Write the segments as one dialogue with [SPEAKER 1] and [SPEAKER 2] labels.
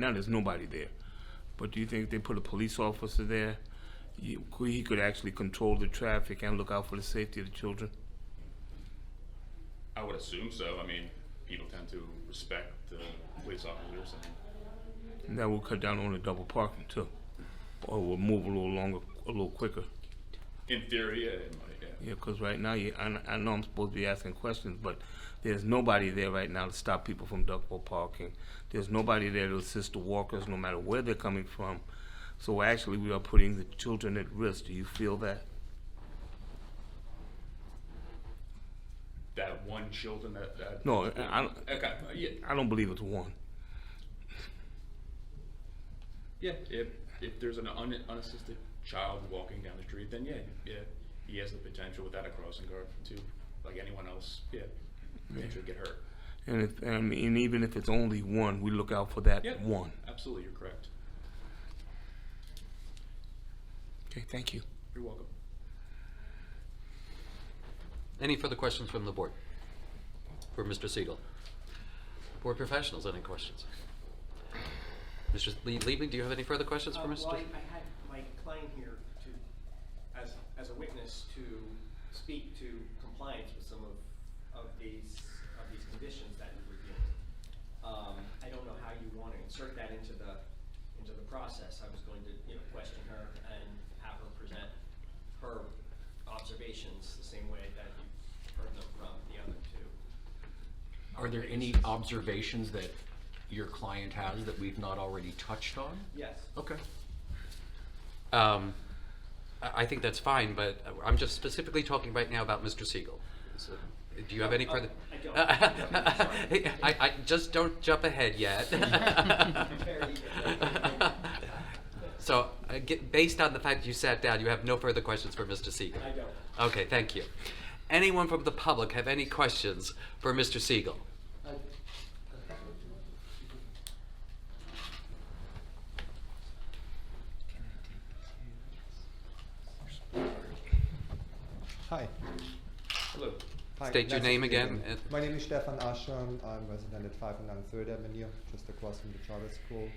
[SPEAKER 1] Now there's nobody there. But do you think if they put a police officer there, you, could- he could actually control the traffic and look out for the safety of the children?
[SPEAKER 2] I would assume so. I mean, people tend to respect the police officers. And
[SPEAKER 1] And that will cut down on the double parking too. Or will move a little longer, a little quicker.
[SPEAKER 2] in theory, yeah, it might, yeah.
[SPEAKER 1] Yeah, 'cause right now, you, I, kn- I know I'm supposed to be asking questions, but there's nobody there right now to stop people from double parking. There's nobody there to assist the walkers, no matter where they're coming from. So actually, we are putting the children at risk. Do you feel that?
[SPEAKER 2] That one children that, that
[SPEAKER 1] No, I- I, don't-
[SPEAKER 2] okay, uh, yeah,
[SPEAKER 1] I don't believe it's one.
[SPEAKER 2] yeah. If if there's an un, unassisted child walking down the street, then yeah, yeah, he has the potential without a crossing guard to, like anyone else, yeah, potentially get hurt.
[SPEAKER 1] And if, and and even if it's only one, we look out for that
[SPEAKER 2] Yeah.
[SPEAKER 1] one.
[SPEAKER 2] Absolutely, you're correct.
[SPEAKER 1] Okay, thank you.
[SPEAKER 2] You're welcome.
[SPEAKER 3] Any further questions from the board? For Mr. Siegel? Board professionals, any questions? Mr. Lee- Liebling, do you have any further questions for
[SPEAKER 4] Uh, Well,
[SPEAKER 3] Mr.?
[SPEAKER 4] I I had Mike Klein here to, as, as a witness, to speak to compliance with some of, of these, of these conditions that you were given. Um, I don't know how you want to insert that into the, into the process. I was going to, you know, question her and have her present her observations the same way that you heard them from the other two.
[SPEAKER 5] Are there any observations that your client has that we've not already touched on?
[SPEAKER 4] Yes.
[SPEAKER 5] Okay.
[SPEAKER 3] Um, I I think that's fine, but I'm just specifically talking right now about Mr. Siegel. So, Do you have any
[SPEAKER 4] Oh,
[SPEAKER 3] further?
[SPEAKER 4] I don't. I'm sorry.
[SPEAKER 3] I, I, just don't jump ahead yet.
[SPEAKER 4] Very
[SPEAKER 3] So, uh, get- based on the fact you sat down, you have no further questions for Mr. Siegel?
[SPEAKER 4] I don't.
[SPEAKER 3] Okay, thank you. Anyone from the public have any questions for Mr. Siegel?
[SPEAKER 6] Hi.
[SPEAKER 2] Hello.
[SPEAKER 6] Hi,
[SPEAKER 3] State your
[SPEAKER 6] nice to
[SPEAKER 3] name
[SPEAKER 6] meet you
[SPEAKER 3] again and-
[SPEAKER 6] My name is Stefan Aschern. I'm resident at 509 Third Avenue, just across from the charter school.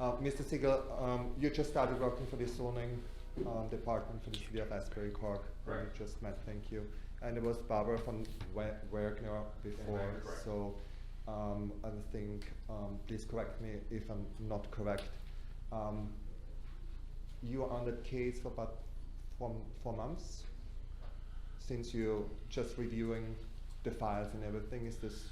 [SPEAKER 6] Uh, Mr. Siegel, um, you just started working for the zoning um, department for the city of Asbury Park. who
[SPEAKER 2] Right.
[SPEAKER 6] We just met, thank you. And it was Barbara von Wa- Wagner before,
[SPEAKER 2] Wagner, correct.
[SPEAKER 6] so um, I think, um, please correct me if I'm not correct. Um, you are on that case for about four, four months since you're just reviewing the files and everything. Is this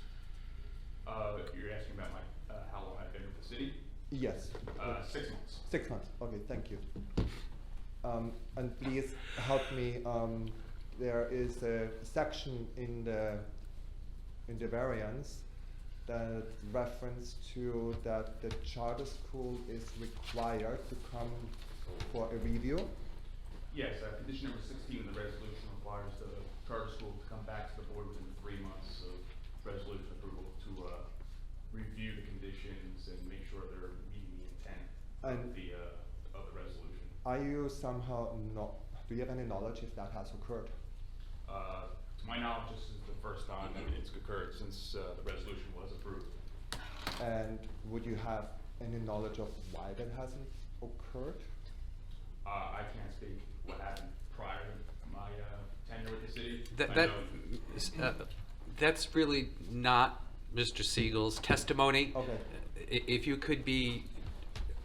[SPEAKER 2] Uh, you're asking about my uh, how long I've been with the city?
[SPEAKER 6] yes?
[SPEAKER 2] Uh, six months.
[SPEAKER 6] Six months. Okay, thank you. Um, and please help me. Um, there is a section in the in the variance that reference to that the charter school is required to come for a review.
[SPEAKER 2] Yes, uh, condition number sixteen of the resolution requires the charter school to come back to the board within three months of resolution approval to, uh, review the conditions and make sure they're meeting the intent of
[SPEAKER 6] And-
[SPEAKER 2] the, uh, of the resolution.
[SPEAKER 6] Are you somehow not? Do you have any knowledge if that has occurred?
[SPEAKER 2] Uh, to my knowledge, this is the first time that it's occurred since, uh, the resolution was approved.
[SPEAKER 6] And would you have any knowledge of why that hasn't occurred?
[SPEAKER 2] Uh, I can't speak what happened prior to my, uh, tenure with the city.
[SPEAKER 3] That,
[SPEAKER 2] I
[SPEAKER 3] that,
[SPEAKER 2] know-
[SPEAKER 3] uh, that's really not Mr. Siegel's testimony.
[SPEAKER 6] Okay.
[SPEAKER 3] I- If you could be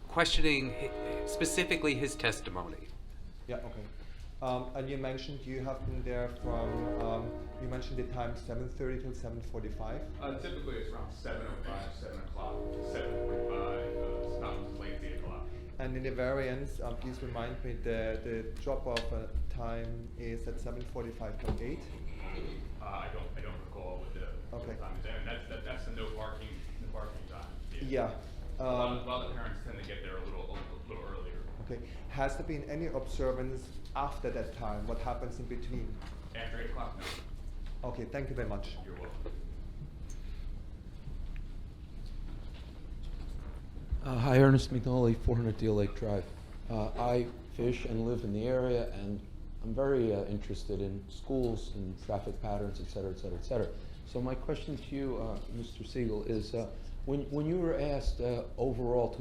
[SPEAKER 3] questioning hi- specifically his testimony.
[SPEAKER 6] Yeah, okay. Um, and you mentioned you have been there from, um, you mentioned the time 7.30 till 7.45.
[SPEAKER 2] Uh, typically it's around seven oh five, seven o'clock, seven forty-five, uh, sometimes late eight o'clock.
[SPEAKER 6] And in the variance, um, please remind me, the, the drop-off uh, time is at 7.45 till 8.
[SPEAKER 2] Uh, I don't, I don't recall what the what the
[SPEAKER 6] Okay.
[SPEAKER 2] time is, and that's, that- that's the no parking, no parking time.
[SPEAKER 6] Yeah.
[SPEAKER 2] A lot,
[SPEAKER 6] Um,
[SPEAKER 2] a lot of parents tend to get there a little, a little earlier.
[SPEAKER 6] okay. Has there been any observance after that time? What happens in between?
[SPEAKER 2] After eight o'clock, no,
[SPEAKER 6] Okay, thank you very much.
[SPEAKER 2] you're welcome.
[SPEAKER 7] Uh, Hi, Ernest McNally, 400 Deal Lake Drive. Uh, I fish and live in the area, and I'm very uh, interested in schools and traffic patterns, et cetera, et cetera, et cetera. So my question to you, uh, Mr. Siegel, is uh, When, when you were asked uh, overall to